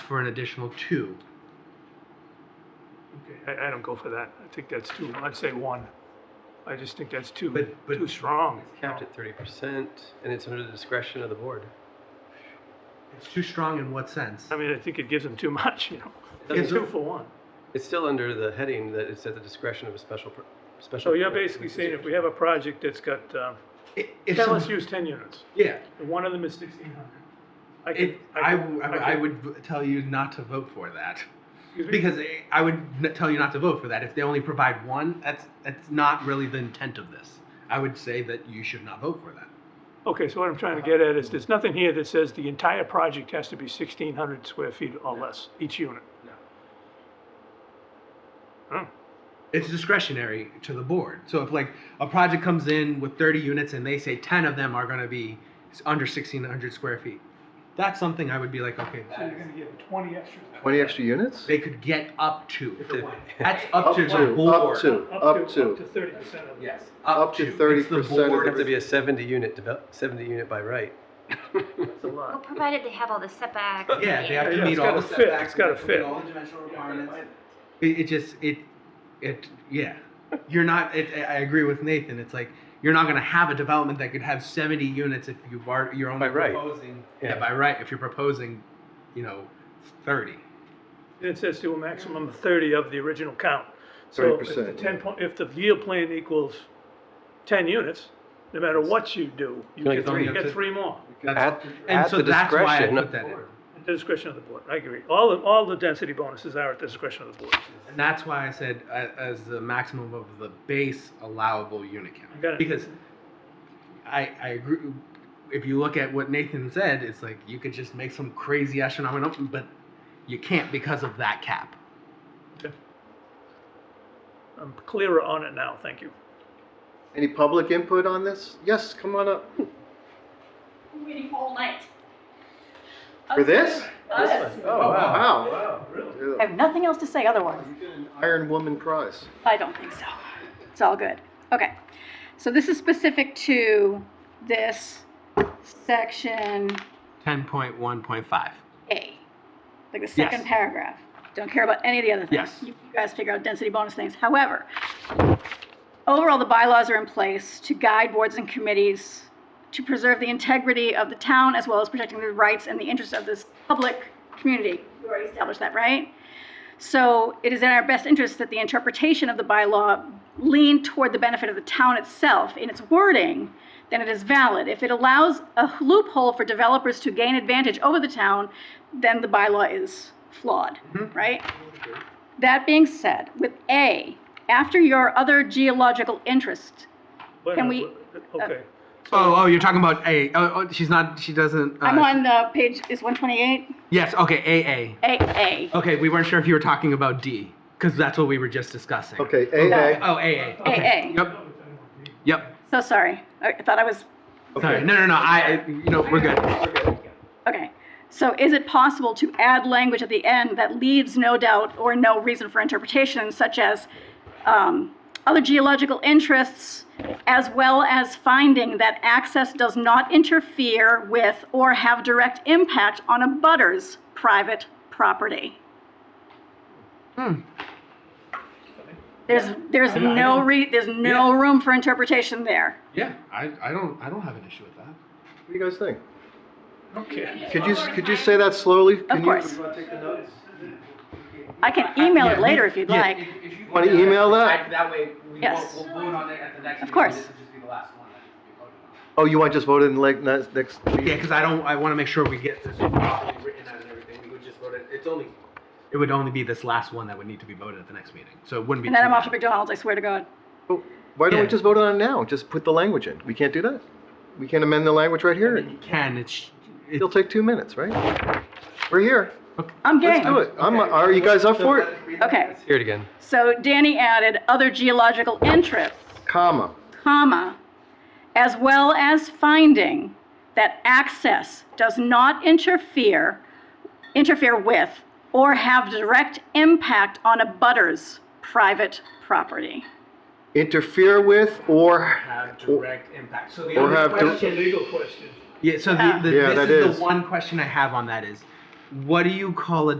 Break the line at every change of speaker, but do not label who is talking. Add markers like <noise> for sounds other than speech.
for an additional two.
Okay, I, I don't go for that. I think that's too, I'd say one. I just think that's too,
But- but-
too strong.
It's capped at thirty percent, and it's under the discretion of the board.
It's too strong in what sense?
I mean, I think it gives them too much, <laughs> you know?
It
It's two
doesn't-
for one.
It's still under the heading that it's at the discretion of a special, per- special.
So you're
permit.
basically saying if we have a project that's got, uh,
I- if
ten,
some-
let's use ten units,
Yeah,
and one of them is sixteen hundred. I could,
it, I,
I could,
w-
I
I
could-
would v- tell you not to vote for that.
excuse me?
Because I- I would n- tell you not to vote for that. If they only provide one, that's, that's not really the intent of this. I would say that you should not vote for that.
Okay, so what I'm trying to get at is, there's nothing here that says the entire project has to be sixteen hundred square feet or less, each unit.
It's discretionary to the board. So if like a project comes in with 30 units and they say 10 of them are going to be s- under 1,600 square feet, that's something I would be like, okay, that is-
give twenty extra.
Twenty extra units?
they could get up to.
To-
That's up to the board.
Up to, up
Up to
to.
thirty percent of.
Yes.
Up to
It's the
30% of
board.
the-
It'd have to be a seventy unit develop, seventy unit by right.
That's a
Well,
lot.
provided they have all the setbacks.
Yeah, they have
Yeah,
to
yeah,
meet
it's
all
gotta
the
fit,
setbacks.
it's gotta
they have to meet
fit.
All the dimensional requirements. It, it just, it, it, yeah. You're not, it, I I agree with Nathan, it's like, you're not gonna have a development that could have seventy units if you've already, you're only
By right.
proposing.
Yeah.
Yeah, by right, if you're proposing, you know, thirty.
And It says to a maximum of thirty of the original count. So if
30%,
the
yeah.
ten point, if the yield plan equals ten units, no matter what you do, you
Like
get
three.
three, you get three more.
That's-
At-
And
at
so
the
that's why I
discretion
put
of
that
the
in.
board.
At the discretion of the board, I agree. All, the- all the density bonuses are at the discretion of the board.
And that's why I said uh, as the maximum of the base allowable unit
I
count.
got it.
Because I, I agree, if you look at what Nathan said, it's like you could just make some crazy astronomical, number, but you can't because of that cap.
I'm clearer on it now, thank you.
Any public input on this? Yes, come on up.
I'm waiting all night.
For this?
Yes.
Oh, wow.
Wow.
I
Yeah.
have nothing else to say otherwise.
Iron Woman prize.
I don't think so. It's all good. Okay. So this is specific to this section
Ten point one point five.
A, like the second paragraph. Don't care about any of the other things.
Yes.
You you guys figure out density bonus things. However, overall, the bylaws are in place to guide boards and committees to preserve the integrity of the town as well as protecting the rights and the interests of this public community. We already established that, right? So it is in our best interest that the interpretation of the bylaw lean toward the benefit of the town itself in its wording, then it is valid. If it allows a loophole for developers to gain advantage over the town, then the bylaw is flawed, right? That being said, with A, after your other geological interest,
Wait a
Can
minute, wait- Okay,
Oh, oh, you're talking about A. Oh, oh, she's not. She doesn't. Uh,
I'm on the page, is 128?
Yes. Okay.
A, A.
AA. Okay. We weren't sure if you were talking about D because that's what we were just discussing.
Okay,
No.
AA.
Oh, AA. Okay.
AA.
Yep. Yep.
So sorry, I I thought I was
Sorry. No, no, no. I. I- You know, we're good.
Okay, so is it possible to add language at the end that leaves no doubt or no reason for interpretation, such as um, other geological interests, as well as finding that access does not interfere with or have direct impact on a butter's private property?
Hmm.
There's, there's
I- I
no
don't-
re, there's no room for interpretation there.
Yeah. I. I don't. I don't have an issue with that.
What do you guys think?
okay.
Could you, could you say that slowly?
Of course. I can email it
Yeah,
later
you-
if you'd
yeah.
like.
Want to email that?
That way, we
Yes.
won't, we'll vote on it at the next.
Of
meeting.
course.
This will just be the last one that we voted on.
Oh, you want to just vote in like next, next?
Yeah, because I don't. I want to make sure we get this properly written out and everything. We would just vote it. It's only. It would only be this last one that would need to be voted at the next meeting, so it wouldn't be.
And then
too
I'm off to
bad.
McDonald's, I swear to God.
Oh, Why don't we
Yeah.
just vote on it now? Just put the language in. We can't do that? We can't amend the language right here?
You can. It's. it's
It'll take two minutes, right? We're here.
okay.
I'm game.
Let's do it. I'm, are you guys up for it?
Okay.
Let's hear it again.
So Danny added other geological interests,
Comma.
comma, as well as finding that access does not interfere, interfere with, or have direct impact on a butter's private property.
Interfere with or,
Have direct impact. So the
Or
only
have dir-
That's a
question.
legal question.
yeah. So the,
Yeah.
the
Yeah,
this
that
is,
is.
the one question I have on that is, what do you call a